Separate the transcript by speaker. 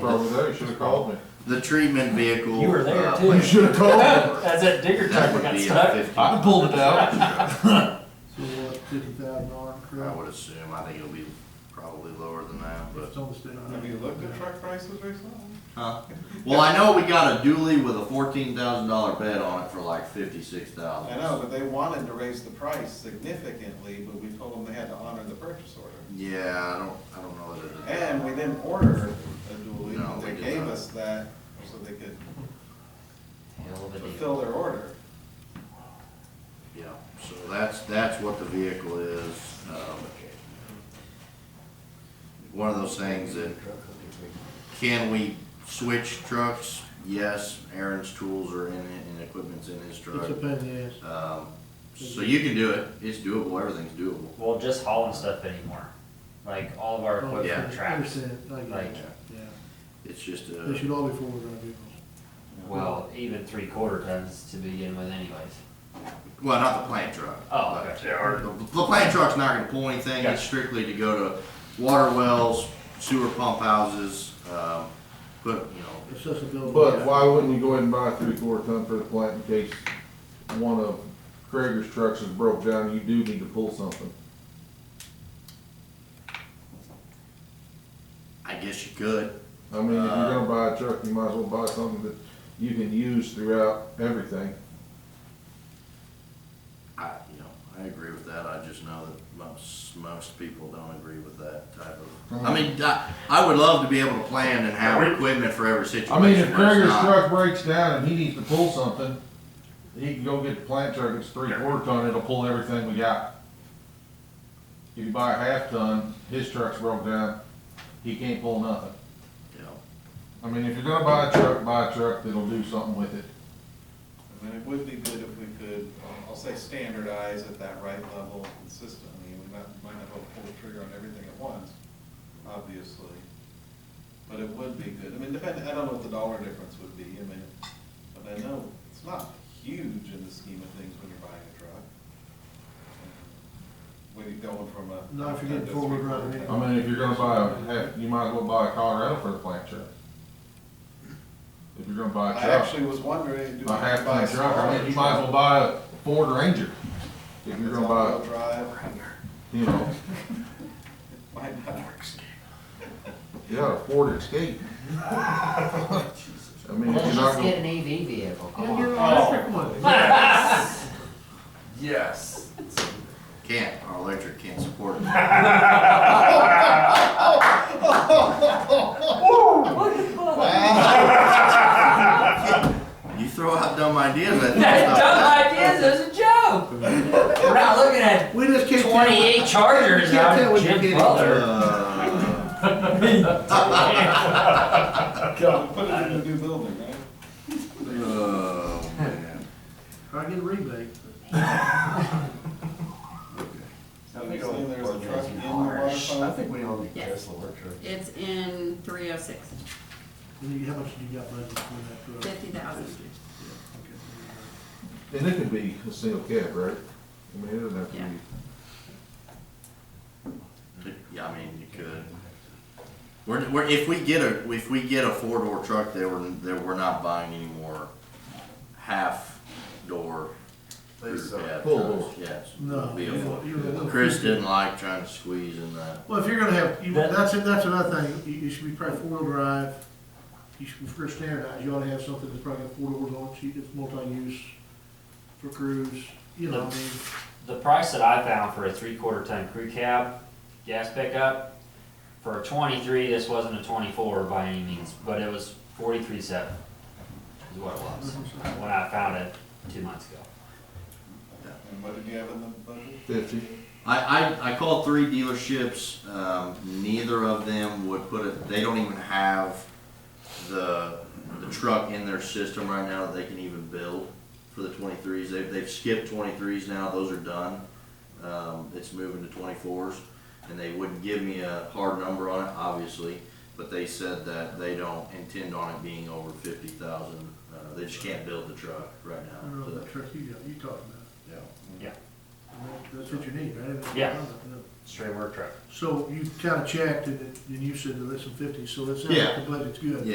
Speaker 1: Probably there, you should have called me.
Speaker 2: The treatment vehicle.
Speaker 3: You were there,
Speaker 2: uh,
Speaker 3: too.
Speaker 2: when-
Speaker 1: should have
Speaker 3: As that digger
Speaker 2: That
Speaker 3: truck
Speaker 2: would
Speaker 3: got
Speaker 2: be
Speaker 3: stuck.
Speaker 2: a fifty,
Speaker 1: I
Speaker 2: I
Speaker 1: can pull it out.
Speaker 4: So what, fifty thousand dollar correct?
Speaker 2: would assume, I think it'll be probably lower than that, but.
Speaker 4: It's almost in.
Speaker 5: Have you looked at truck prices recently?
Speaker 2: Well, I know we got a dually with a fourteen thousand dollar bed on it for like fifty-six thousand.
Speaker 5: I know, but they wanted to raise the price significantly, but we told them they had to honor the purchase order.
Speaker 2: Yeah, I don't, I don't know that it is.
Speaker 5: And we didn't order a dually,
Speaker 2: No,
Speaker 5: but they
Speaker 2: we did
Speaker 5: gave
Speaker 2: not.
Speaker 5: us that so they could
Speaker 3: Hell of a deal.
Speaker 5: fulfill their order.
Speaker 2: Yeah, so that's, that's what the vehicle is. um, One of those things that, can we switch trucks? Yes, Aaron's tools are in it and equipment's in his
Speaker 4: It's
Speaker 2: truck.
Speaker 4: a pain in the ass.
Speaker 2: Um, so you can do it, it's doable, everything's doable.
Speaker 6: Well, just hauling stuff anymore. Like all of our
Speaker 4: Oh,
Speaker 2: yeah.
Speaker 6: equipment
Speaker 4: I
Speaker 6: tracks.
Speaker 4: understand, I get
Speaker 6: Like,
Speaker 4: it, yeah.
Speaker 2: It's just
Speaker 4: They
Speaker 2: a,
Speaker 4: should all be forward drive vehicles.
Speaker 6: well, even three quarter tons to begin with anyways.
Speaker 2: well, not the plant truck.
Speaker 6: Oh, okay.
Speaker 2: The, the plant truck's not gonna pull anything, it's
Speaker 6: Gotcha.
Speaker 2: strictly to go to water wells, sewer pump houses, um, but, you know,
Speaker 4: Accessibility.
Speaker 1: But why wouldn't you go ahead and buy a three-quarter ton for the plant in case one of Krager's trucks is broke down, you do need to pull something?
Speaker 2: I guess you could.
Speaker 1: I mean, if you're
Speaker 2: Uh.
Speaker 1: gonna buy a truck, you might as well buy something that you can use throughout everything.
Speaker 2: I, you know, I agree with that, I just know that most, most people don't agree with that type of, I mean, I, I would love to be able to plan and have equipment for every situation.
Speaker 1: I mean, if
Speaker 2: where it's
Speaker 1: Krager's
Speaker 2: not-
Speaker 1: truck breaks down and he needs to pull something, he can go get the plant truck, it's three-quarter ton, it'll pull everything we got. If you buy a half ton, his truck's broke down, he can't pull nothing.
Speaker 2: you know,
Speaker 1: I mean, if you're gonna buy a truck, buy a truck that'll do something with it.
Speaker 5: I mean, it would be good if we could, uh, I'll say standardize at that right level consistently. We might, might not be able to pull the trigger on everything at once, obviously. But it would be good. I mean, depending, I don't know what the dollar difference would be, I mean, but I know it's not huge in the scheme of things when you're buying a truck. When you're going from a.
Speaker 4: Not if you're getting forward running it.
Speaker 1: I mean, if you're gonna buy a, half- you might as well buy a Colorado for the plant truck. If you're gonna buy
Speaker 5: I
Speaker 1: a truck,
Speaker 5: actually was wondering, do we
Speaker 1: a half
Speaker 5: buy a
Speaker 1: ton truck, I mean, you might as well
Speaker 5: smaller truck?
Speaker 1: buy a Ford Ranger. If you're
Speaker 5: It's
Speaker 1: gonna buy,
Speaker 5: all-wheel drive,
Speaker 1: you know,
Speaker 5: might not.
Speaker 1: you got a Ford Escape. I mean, if you're not
Speaker 6: Just
Speaker 1: gonna,
Speaker 6: get an EV vehicle, come
Speaker 4: Yeah, get an
Speaker 6: on.
Speaker 4: electric one.
Speaker 6: Yes.
Speaker 2: Can't, our electric can't support it. You throw out dumb ideas uh, at me.
Speaker 3: That dumb ideas is a joke. We're not looking at
Speaker 2: We just can't. tell-
Speaker 3: twenty-eight Chargers
Speaker 2: Can't
Speaker 3: out
Speaker 2: tell
Speaker 3: of
Speaker 2: what you're
Speaker 3: Jim
Speaker 2: getting.
Speaker 3: Butler.
Speaker 2: Uh,
Speaker 5: Put it in a new building, right?
Speaker 2: Oh, man.
Speaker 4: Try to get a rebate.
Speaker 5: So you're saying there's a truck in the
Speaker 6: Orange.
Speaker 5: waterfront?
Speaker 7: I think we own the
Speaker 8: Yes.
Speaker 7: Tesla work truck.
Speaker 8: It's in three oh six,
Speaker 4: And you, how much did you got budgeted for that truck?
Speaker 8: fifty thousand.
Speaker 4: Okay.
Speaker 1: and it could be a single cab, right? I mean, it doesn't have to
Speaker 8: Yeah.
Speaker 1: be.
Speaker 2: Yeah, I mean, you could. We're, we're, if we get a, if we get a four-door truck, they were, they we're not buying any more half-door.
Speaker 7: They
Speaker 2: rear
Speaker 7: suck.
Speaker 2: cab
Speaker 1: Full
Speaker 2: trucks.
Speaker 1: door.
Speaker 2: Yes.
Speaker 4: No,
Speaker 2: Be a
Speaker 4: you know,
Speaker 2: full-
Speaker 4: you're a little-
Speaker 2: Chris didn't like trying to squeeze in that.
Speaker 4: Well, if you're gonna have, you,
Speaker 3: That-
Speaker 4: that's, that's another thing, you, you should be probably four-wheel drive, you should, for standardized, you ought to have something that's probably got four doors on it, so you- it's multi-use for crews, you know, I mean,
Speaker 6: The price that I found for a three-quarter ton crew cab, gas pickup, for a twenty-three, this wasn't a twenty-four by any means, but it was forty-three seven. Is what it was, when I found it two months ago.
Speaker 5: And what did you have in the budget?
Speaker 1: Fifty.
Speaker 2: I, I, I called three dealerships, um, neither of them would put it, they don't even have the, the truck in their system right now that they can even build for the twenty-threes, they've, they've skipped twenty-threes now, those are done. Um, it's moving to twenty-fours, and they wouldn't give me a hard number on it, obviously, but they said that they don't intend on it being over fifty thousand, uh, they just can't build the truck right
Speaker 4: I don't
Speaker 2: now,
Speaker 4: know
Speaker 2: so,
Speaker 4: what truck you got, you talking about.
Speaker 2: yeah.
Speaker 4: That's what you need, right?
Speaker 6: Yeah. straight work truck.
Speaker 4: So you kinda checked and, it- and you said the less than fifty, so it sounds
Speaker 2: Yeah.
Speaker 4: like the budget's good.